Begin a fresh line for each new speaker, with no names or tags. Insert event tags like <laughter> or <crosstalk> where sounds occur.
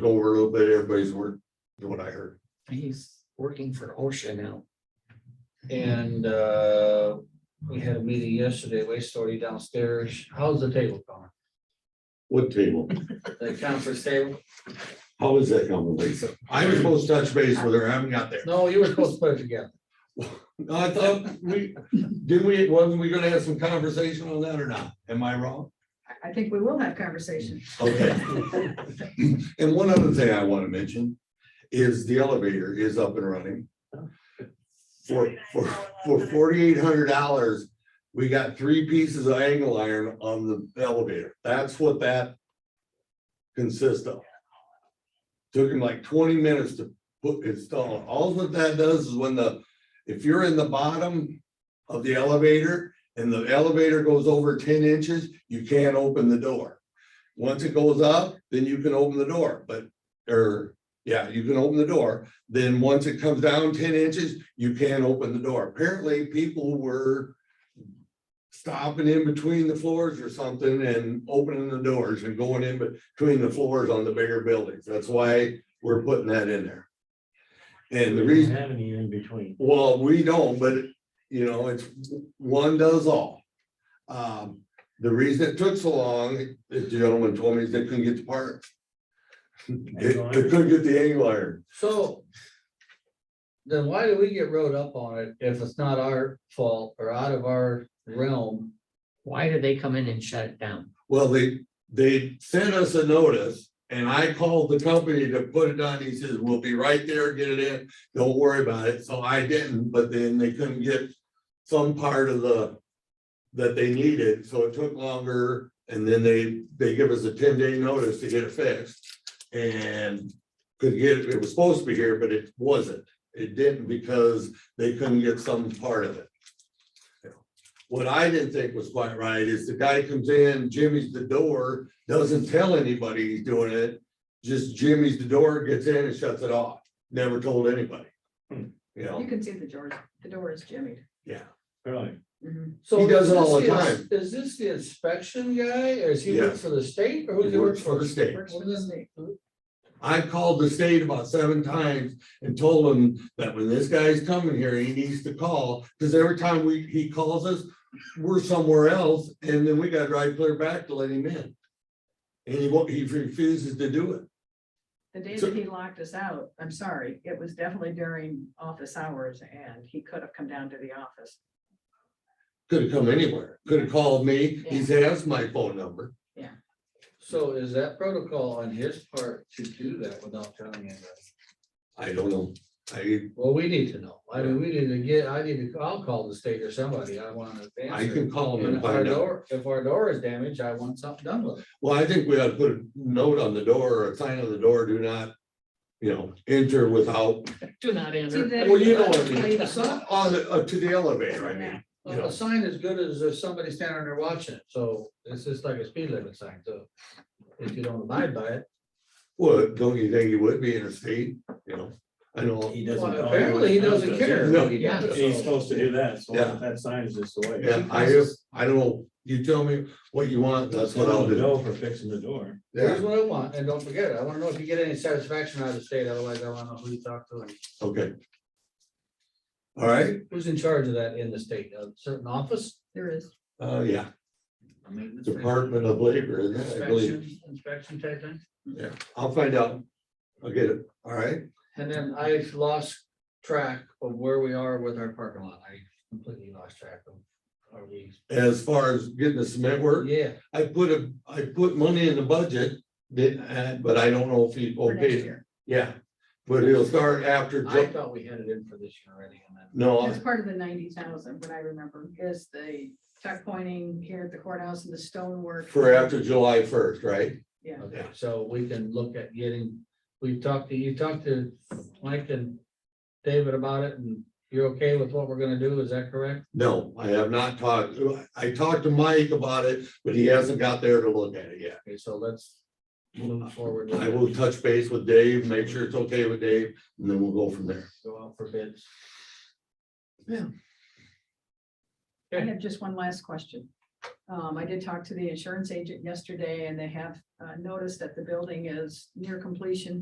go over a little bit, everybody's word, is what I heard.
he's working for OSHA now. And uh, we had a meeting yesterday, waste authority downstairs. How's the table going?
What table?
The conference table?
How is that coming, Lisa? I was supposed to touch base with her, I haven't got there.
No, you were supposed to put it together.
No, I thought we, didn't we, wasn't we gonna have some conversation on that or not? Am I wrong?
I- I think we will have conversation.
Okay. <laughs> And one other thing I wanna mention is the elevator is up and running. For, for, for forty-eight hundred dollars, we got three pieces of angle iron on the elevator. That's what that consists of. Took him like twenty minutes to put, install. it. All that that does is when the, if you're in the bottom of the elevator and the elevator goes over ten inches, you can't open the door. Once it goes up, then you can open the door, but, or, yeah, you can open the door. Then once it comes down ten inches, you can't open the door. Apparently, people were stopping in between the floors or something and opening the doors and going in between the floors on the bigger buildings. That's why we're putting that in there. And the reason.
Have any in between.
Well, we don't, but you know, it's one does all. Um, the reason it took so long, the gentleman told me is they couldn't get the part. <laughs> They they couldn't get the angle iron.
So then why do we get rode up on it if it's not our fault or out of our realm?
Why did they come in and shut it down?
Well, they, they sent us a notice and I called the company to put it on. He says, we'll be right there, get it in. Don't worry about it. So I didn't, but then they couldn't get some part of the that they needed, so it took longer. And then they, they give us a ten day notice to get it fixed. And could get, it was supposed to be here, but it wasn't. It didn't because they couldn't get some part of it. What I didn't think was quite right is the guy comes in, Jimmy's the door, doesn't tell anybody he's doing it. Just Jimmy's the door, gets in and shuts it off, never told anybody. You
You
know,
can see the door, the door is jimmied.
yeah.
Really?
Mhm.
So
He does it
is
all
this
the time.
Is this the inspection guy or is he work
Yes.
for the state or
He
who's he work
works for
for?
the state.
Works for the state.
I called the state about seven times and told them that when this guy's coming here, he needs to call, because every time we, he calls us, we're somewhere else, and then we gotta drive clear back to let him in. And he won't, he refuses to do it.
The day
So-
that he locked us out, I'm sorry, it was definitely during office hours and he could have come down to the office.
Could have come anywhere, could have called me, he's asked my phone number.
So is that protocol on his part to do that without telling anybody?
I don't know, I,
Well, we need to know. I mean, we need to get, I need to, I'll call the state or somebody. I want to.
I can call him
And
and
if our
find out.
door, if our door is damaged, I want something done with it.
Well, I think we ought to put a note on the door or a sign on the door, do not, you know, enter without, <laughs>
Do not
See,
enter.
they-
well, you know what I
Leave
mean,
it.
Some- on, the- uh, to the elevator, I mean. you know.
A sign is good as if somebody's standing there watching it. So it's just like a speed limit sign. So if you don't abide by it.
Well, don't you think he would be interstate, you know, I know,
He
Well,
doesn't. know
Apparently, he
what
doesn't
does,
care.
yeah.
No,
he
yeah,
does.
He's supposed to do that, so
Yeah.
that sign is just the way.
yeah, I just, I don't know, you tell me what you want, that's what I'll do.
Bill for fixing the door.
Here's
Yeah,
what I want. And don't forget, I want to know if you get any satisfaction out of the state. Otherwise, I want to know who you talk to and
okay. All right,
who's in charge of that in the state, a certain office.
There is.
uh, yeah,
I mean,
Department of Labor, isn't it, I believe,
Inspection, inspection type thing.
yeah, I'll find out, I'll get it, all right,
And then I lost track of where we are with our parking lot. I completely lost track of. Are we?
as far as getting the cement work.
Yeah,
I put a, I put money in the budget, did, uh, but I don't know if he
for next
okayed it,
year.
yeah. But it'll start after,
I
Ju-
thought we had it in for this year already and then.
no,
It's
I-
part of the ninety thousand, what I remember, is the tuck pointing here at the courthouse and the stonework.
for after July first, right?
Yeah,
Okay, so we can look at getting, we talked to, you talked to Mike and David about it and you're okay with what we're gonna do, is that correct?
No, I have not talked, I talked to Mike about it, but he hasn't got there to look at it yet.
Okay, so let's move forward. with
I
it.
will touch base with Dave, make sure it's okay with Dave, and then we'll go from there.
Go out for bids.
I have just one last question. Um, I did talk to the insurance agent yesterday and they have, uh, noticed that the building is near completion.